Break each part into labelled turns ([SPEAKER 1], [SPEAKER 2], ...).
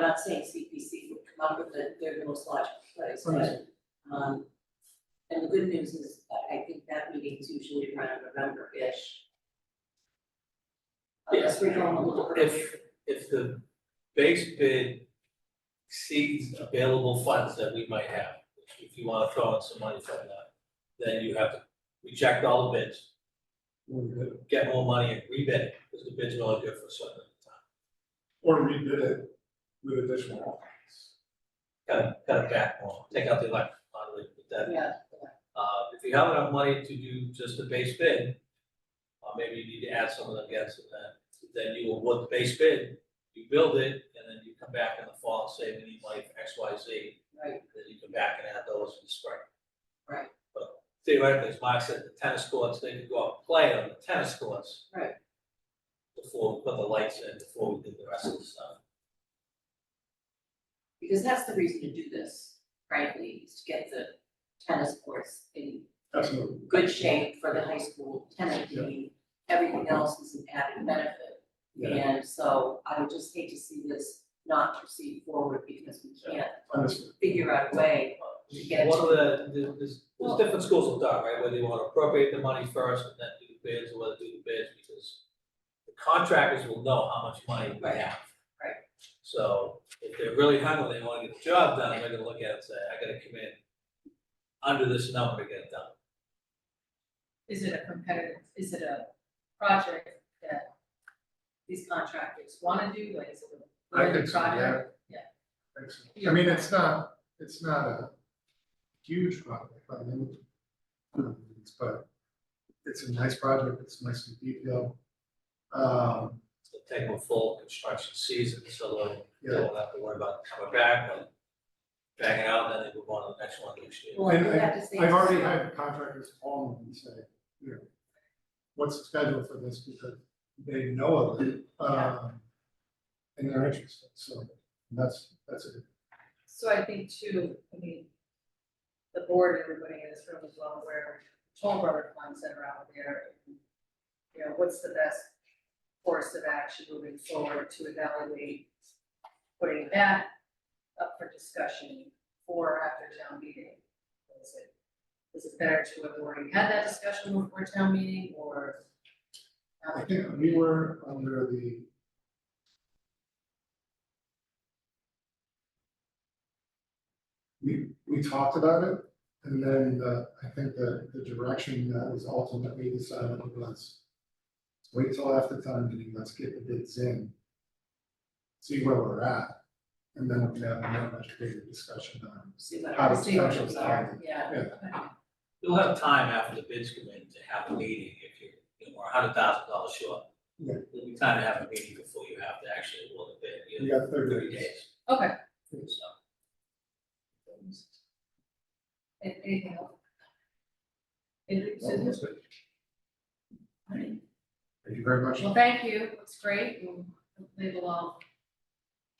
[SPEAKER 1] not saying CPC would come up with the, their most logical place, but,
[SPEAKER 2] Right.
[SPEAKER 1] um, and the good news is, I, I think that meeting's usually around November-ish. Unless we're going a little earlier.
[SPEAKER 2] If, if the base bid exceeds available funds that we might have, if you wanna throw in some money from that, then you have to reject all the bids. Get more money and rebid, because the bids are only good for a certain
[SPEAKER 3] Or rebid it with additional offerings.
[SPEAKER 2] amount of time. Kind of, kind of back more, take out the electric, lottery, but that
[SPEAKER 1] Yeah,
[SPEAKER 2] Uh, if you have enough money to do just the base bid, uh, maybe you need to add some of the gas to that. Then you will, what the base bid, you build it, and then you come back in the fall and say, we need money for X, Y, Z.
[SPEAKER 1] right,
[SPEAKER 2] and Then you come back and add those in the spring.
[SPEAKER 1] Right.
[SPEAKER 2] But theoretically, as Mark said, the tennis courts, they could go out and play on the tennis courts.
[SPEAKER 1] Right.
[SPEAKER 2] Before we put the lights in, before we did the rest of the stuff.
[SPEAKER 1] because that's the reason to do this, frankly, is to get the tennis courts in
[SPEAKER 3] Absolutely.
[SPEAKER 1] good shape for the high school tenant team. Everything else is an added benefit.
[SPEAKER 3] Yeah,
[SPEAKER 1] And so I would just hate to see this not proceed forward because we can't
[SPEAKER 3] understood.
[SPEAKER 1] figure out a way to get it
[SPEAKER 2] One of
[SPEAKER 1] to.
[SPEAKER 2] the, the- there's, there's different schools of thought, right, whether you wanna appropriate the money first and then do the bids, or whether do the bids, because the contractors will know how much money we have.
[SPEAKER 1] Right.
[SPEAKER 2] So, if they're really hungry, they wanna get the job done, they're gonna look at it and say, I gotta come in under this number to get it done.
[SPEAKER 4] Is it a competitive, is it a project that these contractors wanna do, like, is it a
[SPEAKER 3] I
[SPEAKER 4] related
[SPEAKER 3] think so, yeah.
[SPEAKER 4] project?
[SPEAKER 3] Excellent. I mean, it's not, it's not a huge project, by any means, but it's a nice project, it's nicely detailed. Um,
[SPEAKER 2] So take them full construction season, so they'll,
[SPEAKER 3] Yeah.
[SPEAKER 2] they won't have to worry about coming back, but banging out, then they move on to the next one next year.
[SPEAKER 3] well, and
[SPEAKER 1] We
[SPEAKER 3] I-
[SPEAKER 1] have to say-
[SPEAKER 3] I've already had contractors call me and say, you know, what's the schedule for this, because they know of it, um, and they're interested, so that's, that's it.
[SPEAKER 4] So I think too, I mean, the board, everybody in this room is well aware, Toll Road funds that are out there. You know, what's the best course of action moving forward to evaluate putting that up for discussion for after town meeting? Is it, is it better to have already had that discussion before town meeting or?
[SPEAKER 3] I think we were under the. We, we talked about it, and then the, I think the, the direction that was ultimately decided was. Wait till after town meeting, let's get the bids in. See where we're at, and then we can have a much bigger discussion on.
[SPEAKER 1] See what
[SPEAKER 3] How
[SPEAKER 1] our
[SPEAKER 3] the
[SPEAKER 1] distinguishes
[SPEAKER 3] schedules
[SPEAKER 1] are,
[SPEAKER 3] are.
[SPEAKER 1] yeah.
[SPEAKER 2] You'll have time after the bids come in to have a meeting if you're, you know, we're a hundred thousand dollars short.
[SPEAKER 3] Yeah.
[SPEAKER 2] There'll be time to have a meeting before you have to actually award the bid,
[SPEAKER 3] We
[SPEAKER 2] you know,
[SPEAKER 3] got thirty
[SPEAKER 2] thirty
[SPEAKER 3] days.
[SPEAKER 2] days,
[SPEAKER 4] Okay,
[SPEAKER 2] so.
[SPEAKER 4] An- anything else? Anything, Susan?
[SPEAKER 3] Thank you very much.
[SPEAKER 4] Well, thank you, it's great, and hopefully we'll all,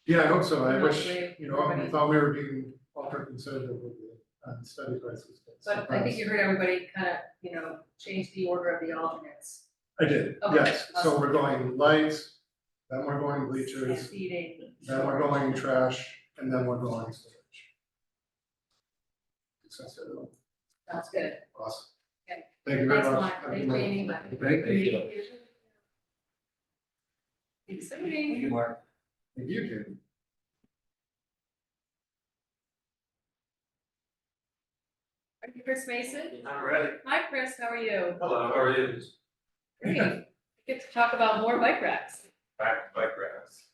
[SPEAKER 3] Yeah, I hope so, I
[SPEAKER 4] Yeah,
[SPEAKER 3] wish,
[SPEAKER 4] we-
[SPEAKER 3] you know, I
[SPEAKER 4] everybody-
[SPEAKER 3] thought we were being ultra conservative with the, uh, study prices.
[SPEAKER 4] but I think you heard everybody kind of, you know, change the order of the alternates.
[SPEAKER 3] I did,
[SPEAKER 4] Okay,
[SPEAKER 3] yes, so
[SPEAKER 4] awesome.
[SPEAKER 3] we're going lights, then we're going bleachers,
[SPEAKER 4] Seating.
[SPEAKER 3] then we're going trash, and then we're going storage. Success, everyone.
[SPEAKER 4] Sounds good.
[SPEAKER 3] awesome.
[SPEAKER 4] Okay.
[SPEAKER 3] Thank you very
[SPEAKER 4] Thanks a
[SPEAKER 3] much.
[SPEAKER 4] lot,
[SPEAKER 3] Have a
[SPEAKER 4] thank
[SPEAKER 3] good
[SPEAKER 4] you,
[SPEAKER 3] night.
[SPEAKER 4] Amy. Bye.
[SPEAKER 3] Thank you.
[SPEAKER 4] Exciting.
[SPEAKER 3] Thank you, Jamie.
[SPEAKER 4] Are you Chris Mason?
[SPEAKER 2] All right.
[SPEAKER 4] Hi, Chris, how are you?
[SPEAKER 2] Hello, how are you?
[SPEAKER 4] Great, get to talk about more bike racks.
[SPEAKER 5] back bike racks.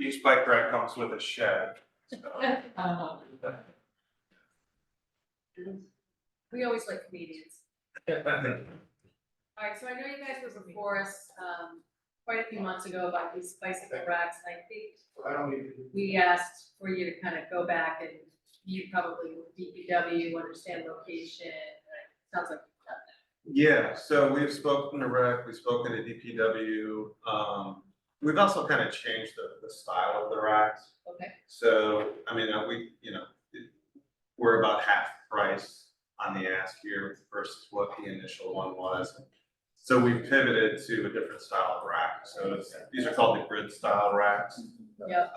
[SPEAKER 5] Each bike rack comes with a shed, so.
[SPEAKER 4] Um, We always like comedians. All right, so I know you guys were before us, um, quite a few months ago about these bicycle racks, and I think
[SPEAKER 3] I don't need to.
[SPEAKER 4] we asked for you to kind of go back and you probably with DPW understand location, and it sounds like you've done
[SPEAKER 5] Yeah, so we've spoken to rec, we've spoken to DPW, um, we've also kind of changed the, the style of the racks.
[SPEAKER 4] that, okay?
[SPEAKER 5] So, I mean, uh, we, you know, it- we're about half price on the ask here versus what the initial one was. So we pivoted to a different style of rack, so it's, these are called the grid style racks.
[SPEAKER 4] Yep.